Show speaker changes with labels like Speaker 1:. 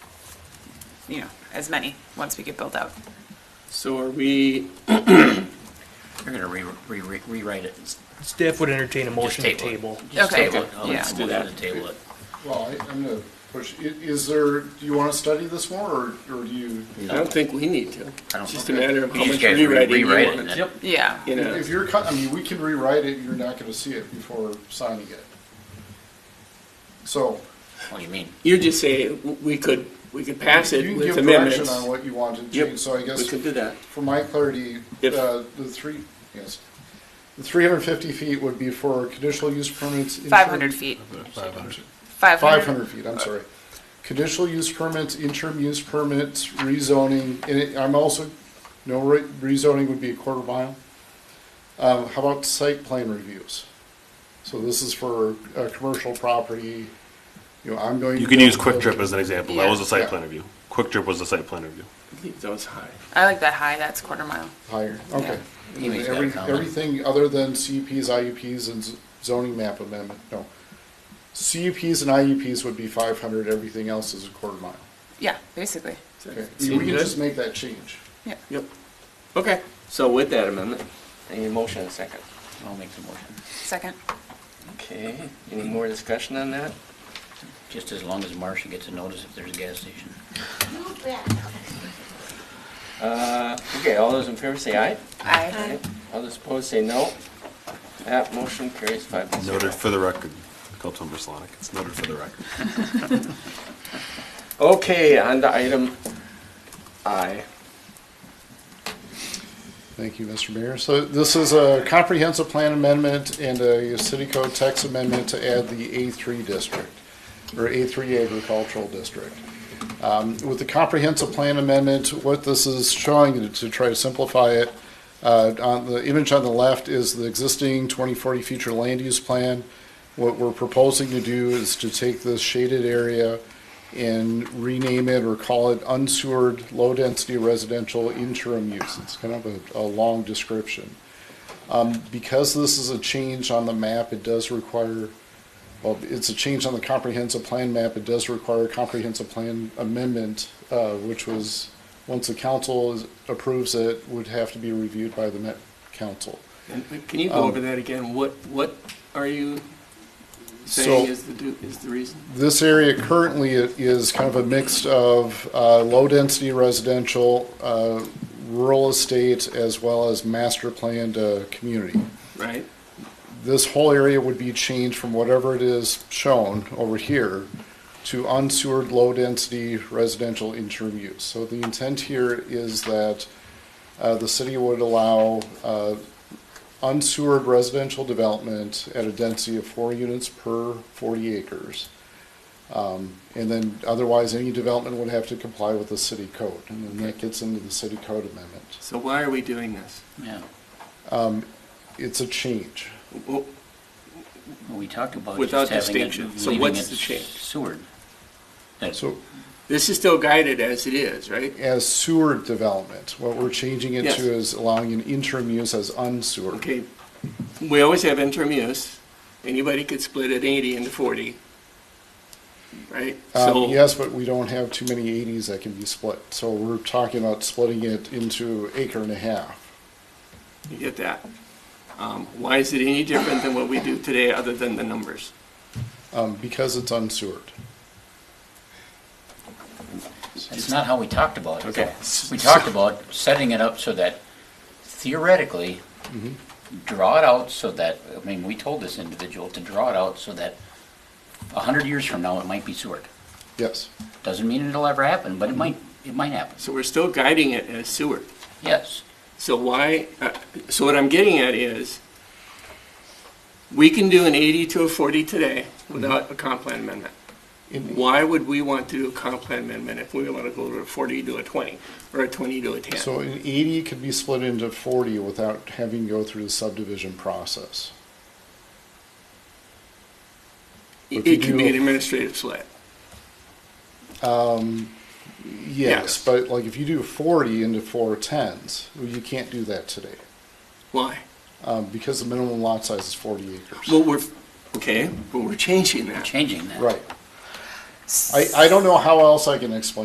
Speaker 1: you know, as many once we get built out.
Speaker 2: So are we,
Speaker 3: You're gonna re, re- re- rewrite it. Just
Speaker 4: Staff would entertain a motion to
Speaker 3: it.
Speaker 4: table.
Speaker 3: Just
Speaker 1: Okay.
Speaker 3: table it. I'll
Speaker 1: Yeah.
Speaker 3: make a
Speaker 2: Do
Speaker 3: motion
Speaker 2: that.
Speaker 3: to table it.
Speaker 5: Well, I- I'm going to push, i- is there, do you want to study this more, or or do you?
Speaker 2: I don't think we need to.
Speaker 3: I don't
Speaker 2: It's just a
Speaker 3: know.
Speaker 2: matter of how
Speaker 3: You
Speaker 2: much
Speaker 3: guys re-
Speaker 2: rewriting you
Speaker 3: rewrite it
Speaker 2: want.
Speaker 3: and then-
Speaker 2: Yep.
Speaker 1: Yeah.
Speaker 2: You know,
Speaker 5: If you're, cut- I mean, we can rewrite it, you're not going to see it before signing it. So
Speaker 3: What do you mean?
Speaker 2: you just say, w- we could, we could pass
Speaker 5: you
Speaker 2: it
Speaker 5: can
Speaker 2: with
Speaker 5: give direction
Speaker 2: amendments.
Speaker 5: on what you want to
Speaker 2: Yep,
Speaker 5: change, so I guess.
Speaker 2: We could do that.
Speaker 5: For my clarity,
Speaker 2: If-
Speaker 5: uh, the three, yes, the three hundred and fifty feet would be for conditional use permits. interim-
Speaker 1: 500 feet. 500.
Speaker 5: Five hundred feet, I'm sorry. Conditional use permits, interim use permits, rezoning, and it- I'm also, no, re- rezoning would be a quarter mile. Um, how about site plan reviews? So this is for a commercial property, you know, I'm going.
Speaker 6: You can use Quick Trip as an example. That was a
Speaker 5: Yeah.
Speaker 6: site plan review. Quick Trip was a site plan review.
Speaker 2: That was high.
Speaker 1: I like that high, that's quarter mile.
Speaker 5: Higher, okay.
Speaker 3: He makes that
Speaker 5: Every-
Speaker 3: comment.
Speaker 5: Everything other than CUPs, IUPs, and z- zoning map amendment, no. CUPs and IUPs would be five hundred, everything else is a quarter mile.
Speaker 1: Yeah, basically.
Speaker 2: Does that
Speaker 5: Okay, I mean,
Speaker 2: seem
Speaker 5: we can
Speaker 2: good?
Speaker 5: just make that change.
Speaker 1: Yeah.
Speaker 2: Yep. Okay, so with that amendment, any motion in a second?
Speaker 3: I'll make the motion.
Speaker 1: Second.
Speaker 2: Okay, any more discussion on that?
Speaker 3: Just as long as Marcia gets a notice if there's a gas station.
Speaker 2: Uh, okay, all those in favor say aye.
Speaker 1: Aye.
Speaker 2: All those opposed say no. That motion carries five to zero.
Speaker 6: Noted for the record, Councilmember Solonic. It's noted for the record.
Speaker 2: Okay, on to item I.
Speaker 5: Thank you, Mr. Mayor. So this is a comprehensive plan amendment and a city code text amendment to add the A3 district, or A3 agricultural district. Um, With the comprehensive plan amendment, what this is showing, to try to simplify it, uh, on the image on the left is the existing 2040 future land use plan. What we're proposing to do is to take this shaded area and rename it or call it unsewered low-density residential interim use. It's kind of a, a long description. Um, because this is a change on the map, it does require, well, it's a change on the comprehensive plan map, it does require a comprehensive plan amendment, uh, which was, once the council is- approves it, would have to be reviewed by the Met Council.
Speaker 2: Can you
Speaker 5: Um,
Speaker 2: go over that again? What, what are you
Speaker 5: So-
Speaker 2: saying is the, do- is the reason?
Speaker 5: This area currently i- is kind of a mix of uh, low-density residential, uh, rural estate, as well as master-planned uh, community.
Speaker 2: Right?
Speaker 5: This whole area would be changed from whatever it is shown over here to unsewered low-density residential interim use. So the intent here is that uh, the city would allow uh, unsewered residential development at a density of four units per 40 acres. Um, And then otherwise, any development would have to comply with the city code. And then that gets into the city code amendment.
Speaker 2: So why are we doing this?
Speaker 3: Yeah.
Speaker 5: It's a change.
Speaker 2: Well,
Speaker 3: Well, We talked about
Speaker 2: Without
Speaker 3: just having it,
Speaker 2: distinction. So
Speaker 3: leaving
Speaker 2: what's
Speaker 3: it
Speaker 2: the change?
Speaker 3: sewered. That-
Speaker 5: So
Speaker 2: This is still guided as it is, right?
Speaker 5: as sewer development, what we're changing it
Speaker 2: Yes.
Speaker 5: to is allowing an interim use as unsewered.
Speaker 2: Okay, we always have interim use. Anybody could split it eighty into forty, right? So
Speaker 5: Um, yes, but we don't have too many 80s that can be split. So we're talking about splitting it into acre and a half.
Speaker 2: You get that? Um, Why is it any different than what we do today, other than the numbers?
Speaker 5: Um, because it's unsewered.
Speaker 3: That's not how we talked about it.
Speaker 2: Okay.
Speaker 3: though. We talked about setting it up so that theoretically, draw it out so that, I mean, we told this individual to draw it out so that a hundred years from now, it might be sewered.
Speaker 5: Yes.
Speaker 3: Doesn't mean it'll ever happen, but it might, it might happen.
Speaker 2: So we're still guiding it as sewer.
Speaker 3: Yes.
Speaker 2: So why, uh, so what I'm getting at is, we can do an 80 to a 40 today without a comp plan amendment.
Speaker 5: In-
Speaker 2: Why would we want to do a comp plan amendment if we want to go to a 40 to a 20, or a 20 to a 10?
Speaker 5: So an 80 could be split into 40 without having to go through the subdivision process.
Speaker 2: It
Speaker 5: if you
Speaker 2: it could be
Speaker 5: do-
Speaker 2: an administrative split. Yes.
Speaker 5: Yes, but like if you do forty into four tens, well, you can't do that today.
Speaker 2: Why?
Speaker 5: Um, because the minimum lot size is forty acres.
Speaker 2: Well, we're, okay, but we're changing that.
Speaker 3: Changing that.
Speaker 5: Right. I, I don't know how else I can explain